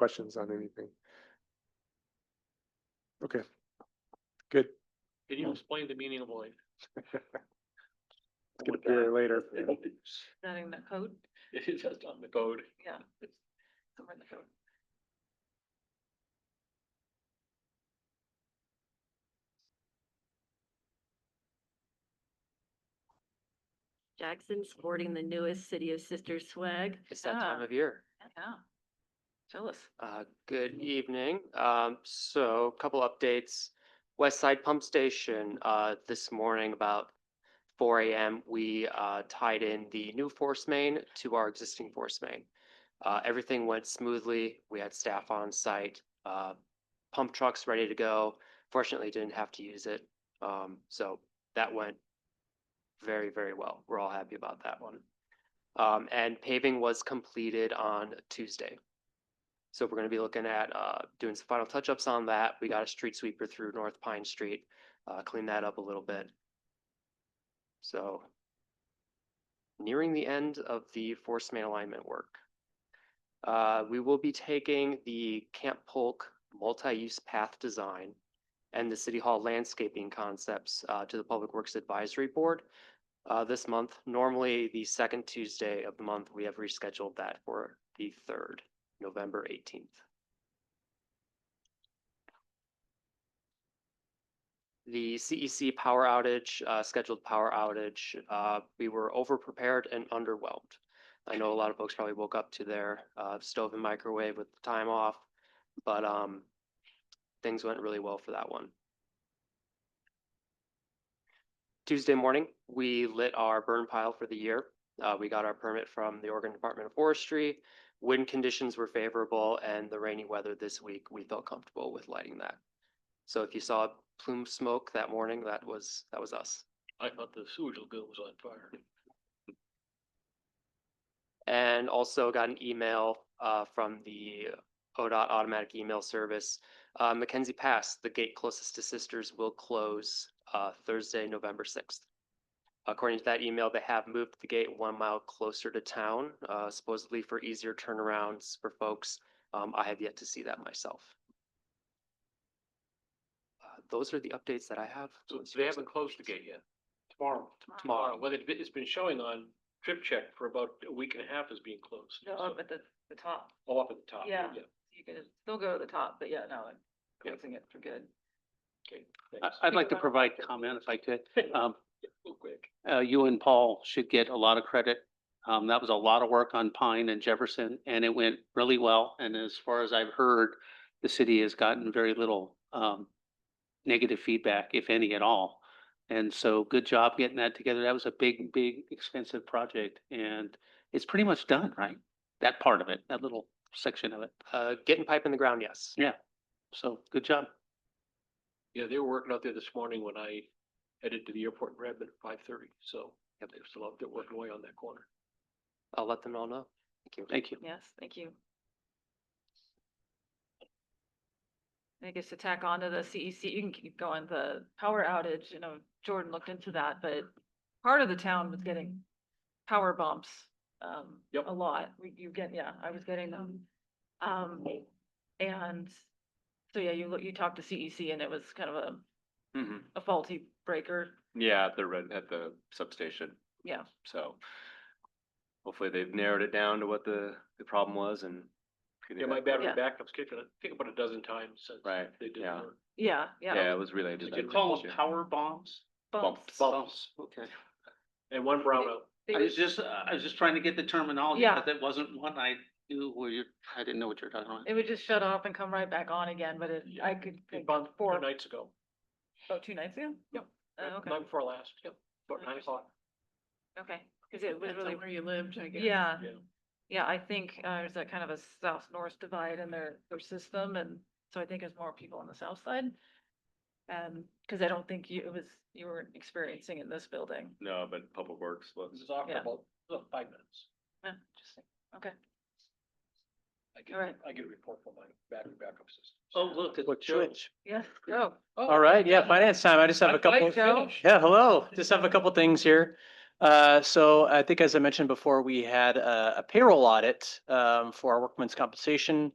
questions on anything. Okay. Good. Can you explain the meaning of life? It's gonna appear later. Not in the code, It's just on the code. yeah. it's Somewhere in the code. Jackson sporting the newest City of Sisters swag. It's that Ah. time of year. Yeah. Tell us. Uh, good evening. Um, so a couple updates. West Side Pump Station, uh, this morning about four AM, we, uh, tied in the new force main to our existing force main. Uh, everything went smoothly. We had staff on site, uh, pump trucks ready to go. Fortunately, didn't have to use it. Um, so that went very, very well. We're all happy about that one. Um, and paving was completed on Tuesday. So we're gonna be looking at uh doing some final touch-ups on that. We got a street sweeper through North Pine Street, uh clean that up a little bit. So nearing the end of the force main alignment work. Uh, we will be taking the Camp Polk multi-use path design and the City Hall landscaping concepts uh to the Public Works Advisory Board uh this month. Normally, the second Tuesday of the month, we have rescheduled that for the third. November eighteenth. The CEC power outage, uh, scheduled power outage, uh, we were overprepared and underwhelmed. I know a lot of folks probably woke up to their, uh, stove and microwave with the time off, but, um, things went really well for that one. Tuesday morning, we lit our burn pile for the year. Uh, we got our permit from the Oregon Department of Forestry wind conditions were favorable and the rainy weather this week, we felt comfortable with lighting that. So if you saw plume smoke that morning, that was, that was us. I thought the sewage lagoon was on fire. And also got an email uh from the ODOT automatic email service. Uh Mackenzie Pass, the gate closest to Sisters will close uh Thursday, November sixth. According to that email, they have moved the gate one mile closer to town, uh supposedly for easier turnarounds for folks. Um, I have yet to see that myself. Uh, Those are the updates that I have. So Unless you they have some- haven't closed the gate yet. Tomorrow. Tomorrow, well, it- it's been showing on trip check for about a week and a half as being closed. No, so- up at the, the top. Oh, up at the top. Yeah. You can still go to the top, but yeah, no, I'm Yeah. closing it for good. Okay, I- thanks. I'd like to Supervisor. provide comment if I could. Um, Real quick. uh, you and Paul should get a lot of credit. Um, that was a lot of work on Pine and Jefferson and it went really well. And as far as I've heard, the city has gotten very little, um, negative feedback, if any at all. And so good job getting that together. That was a big, big expensive project and it's pretty much done, right? That part of it, that little section of it. Uh, getting pipe in the ground, yes. So good job. Yeah, they were working out there this morning when I headed to the airport in Redmond at five thirty, so yeah, they're still out there working away on that corner. I'll let them all know. Thank you. Thank you. Yes, thank you. I guess to tack on to the CEC, you can keep going, the power outage, you know, Jordan looked into that, but part of the town was getting power bumps, um, Yep. a lot. We- You get, yeah, I was getting them. Um, and so, yeah, you, look- you talked to CEC and it was kind of a, Mhm. a faulty breaker. Yeah, at the red, at the substation, Yeah, so. Hopefully they've narrowed it down to what the, the problem was and. figured Yeah, it my out. battery Yeah. backup's kicking, I think about a dozen times since Right, they did the yeah. work. yeah, Yeah, yeah. it was related to. Did you that call them issue. power bombs? Bumps. bump. Bombs, okay. And one brownout. They I were- was just, I was just trying to get the terminology, Yeah. but that wasn't one I knew where you, I didn't know what you were talking about. It would just shut off and come right back on again, but it, I could. It think bumped four four- nights ago. Oh, two nights ago? Yep. Oh, Okay, Night before last, yep, about nine Interesting. o'clock. okay, because it was really, you lived, I yeah, Yeah. yeah, I think uh, there's that kind of a south-north divide in their, their system, and so I think there's more people on the south side. Um, because I don't think you, it was, you were experiencing in this building. No, but Public Works This was. is off for Yeah. about about five minutes. Yeah, Interesting, okay. I get, All right. I get a report from my battery backup system. Oh, look, it's Well, Joe. Twitch. Yes, go. All right, yeah, finance time. I just have a I'd like couple. to finish. Yeah, hello. Just have a couple things here. Uh, so I think as I mentioned before, we had a a payroll audit um for our workman's compensation